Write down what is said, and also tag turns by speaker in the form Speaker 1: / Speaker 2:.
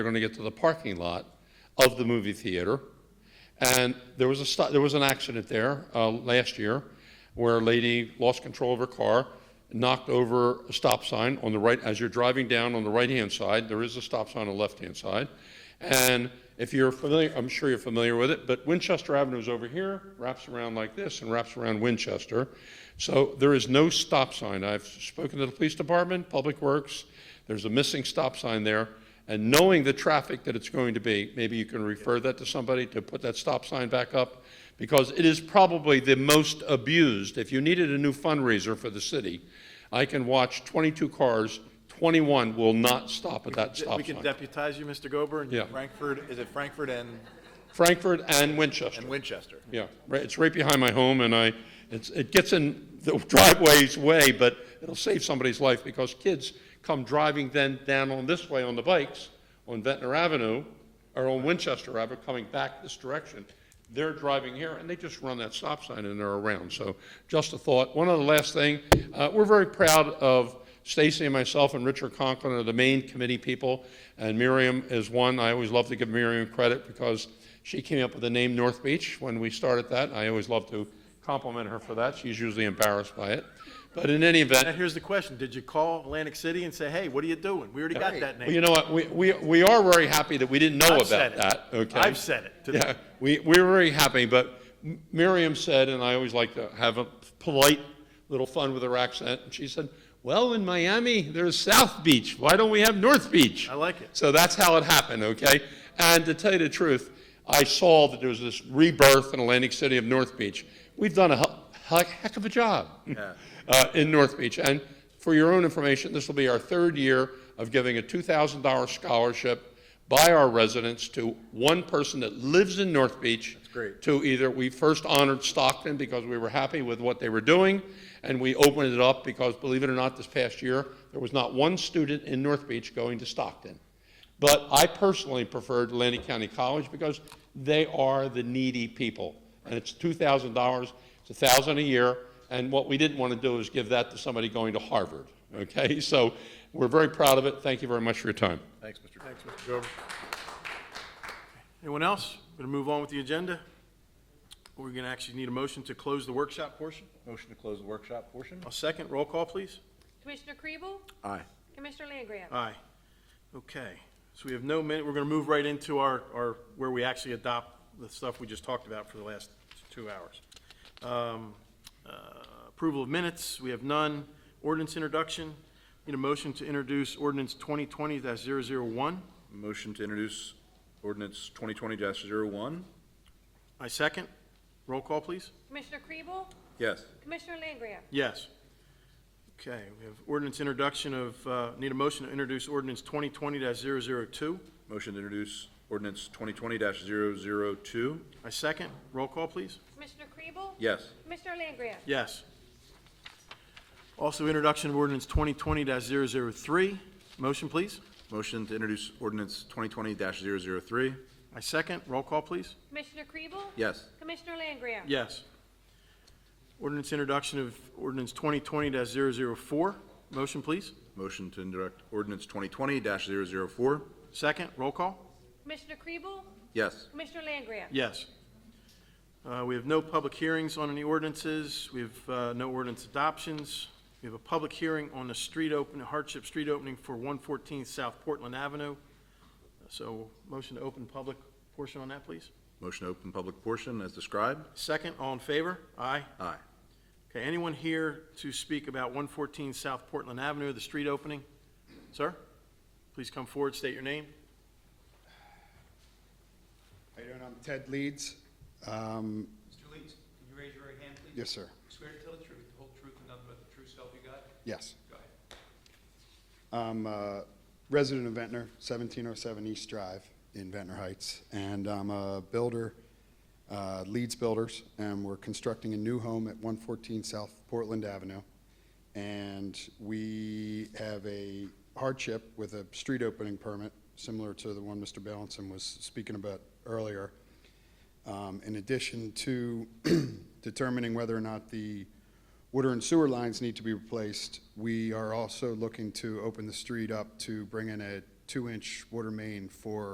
Speaker 1: They're going to get to the parking lot of the movie theater. And there was a, stu- there was an accident there uh, last year where a lady lost control of her car, knocked over a stop sign on the right, as you're driving down on the right-hand side, there is a stop sign on the left-hand side. And if you're familiar, I'm sure you're familiar with it, but Winchester Avenue is over here, wraps around like this and wraps around Winchester. So there is no stop sign. I've spoken to the police department, Public Works, there's a missing stop sign there. And knowing the traffic that it's going to be, maybe you can refer that to somebody to put that stop sign back up because it is probably the most abused. If you needed a new fundraiser for the city, I can watch 22 cars, 21 will not stop at that
Speaker 2: We
Speaker 1: stop
Speaker 2: can
Speaker 1: sign.
Speaker 2: deputize you, Mr. Gober,
Speaker 1: Yeah.
Speaker 2: and Frankfurt, is it Frankfurt and,
Speaker 1: Frankfurt and Winchester.
Speaker 2: and Winchester?
Speaker 1: Yeah, right, it's right behind my home, and I, it's, it gets in the driveway's way, but it'll save somebody's life, because kids come driving then down on this way on the bikes, on Ventnor Avenue, or on Winchester Avenue, coming back this direction. They're driving here, and they just run that stop sign and they're around, so just a thought. One other last thing, uh, we're very proud of Stacy and myself and Richard Conklin are the main committee people, and Miriam is one. I always love to give Miriam credit because she came up with the name North Beach when we started that. I always love to compliment her for that. She's usually embarrassed by it. But in any
Speaker 2: Now,
Speaker 1: event,
Speaker 2: here's the question, did you call Atlantic City and say, hey, what are you doing? We already got that
Speaker 1: well, you
Speaker 2: name.
Speaker 1: know what, we, we, we are very happy that we didn't know
Speaker 2: I've said
Speaker 1: about
Speaker 2: it.
Speaker 1: that, okay?
Speaker 2: I've said it today.
Speaker 1: Yeah, we, we were very happy, but M- Miriam said, and I always like to have a polite little fun with her accent, and she said, well, in Miami, there's South Beach, why don't we have North Beach?
Speaker 2: I like it.
Speaker 1: So that's how it happened, okay? And to tell you the truth, I saw that there was this rebirth in Atlantic City of North Beach. We've done a he- he- heck of a job uh, in North Beach. And for your own information, this will be our third year of giving a $2,000 scholarship by our residents to one person that lives in North Beach. That's
Speaker 2: great.
Speaker 1: To either, we first honored Stockton because we were happy with what they were doing, and we opened it up because, believe it or not, this past year, there was not one student in North Beach going to Stockton. But I personally preferred Atlantic County College because they are the needy people. And it's two thousand dollars, it's a thousand a year, and what we didn't want to do is give that to somebody going to Harvard, okay? So we're very proud of it. Thank you very much for your time.
Speaker 2: Thanks, Mr. Thanks, Mr. Gober. Anyone else? Going to move on with the agenda? We're going to actually need a motion to close the workshop portion.
Speaker 3: Motion to close the workshop portion?
Speaker 2: A second, roll call, please.
Speaker 4: Commissioner Kriebel?
Speaker 3: Aye.
Speaker 4: Commissioner Langria?
Speaker 2: Aye. Okay, so we have no minute, we're gonna move right into our, our, where we actually adopt the stuff we just talked about for the last two hours. Um, uh, Approval of minutes, we have none. Ordinance introduction, need a motion to introduce ordinance twenty twenty one
Speaker 3: Motion to introduce ordinance twenty twenty one
Speaker 2: I second. Roll call, please.
Speaker 4: Commissioner Kriebel?
Speaker 3: Yes.
Speaker 4: Commissioner Langria?
Speaker 2: Yes. Okay, we have ordinance introduction of, uh, need a motion to introduce ordinance twenty twenty 2
Speaker 3: Motion to introduce ordinance twenty twenty 2
Speaker 2: I second. Roll call, please.
Speaker 4: Commissioner Kriebel?
Speaker 3: Yes.
Speaker 4: Commissioner Langria?
Speaker 2: Yes. Also, introduction of ordinance 2020-003. Motion, please.
Speaker 3: Motion to introduce ordinance twenty twenty 3
Speaker 2: I second. Roll call, please.
Speaker 4: Commissioner Kriebel?
Speaker 3: Yes.
Speaker 4: Commissioner Langria?
Speaker 2: Yes. Ordinance introduction of ordinance 2020-004. Motion, please.
Speaker 3: Motion to introduce ordinance twenty twenty 4
Speaker 2: Second. Roll call.
Speaker 4: Commissioner Kriebel?
Speaker 3: Yes.
Speaker 4: Commissioner Langria?
Speaker 2: Yes. Uh, We have no public hearings on any ordinances. We have uh, no ordinance adoptions. We have a public hearing on the street open, hardship street opening for 114 South Portland Avenue. So motion to open public portion on that, please.
Speaker 3: Motion to open public portion as described?
Speaker 2: Second, all in favor? Aye.
Speaker 3: Aye.
Speaker 2: Okay, anyone here to speak about 114 South Portland Avenue, the street opening? Sir, please come forward, state your name.
Speaker 5: How you doing? I'm Ted Leeds. Um,
Speaker 6: Mr. Leeds, can you raise your right hand, please?
Speaker 5: Yes, sir.
Speaker 6: Swear to tell the truth, the whole truth, and nothing but the true self you got?
Speaker 5: Yes.
Speaker 6: Go ahead.
Speaker 5: I'm a resident of Ventnor, 1707 East Drive in Ventnor Heights, and I'm a builder, uh, Leeds Builders, and we're constructing a new home at 114 South Portland Avenue. And we have a hardship with a street opening permit, similar to the one Mr. Balanson was speaking about earlier. um, in addition to determining whether or not the water and sewer lines need to be replaced, we are also looking to open the street up to bring in a two-inch water main for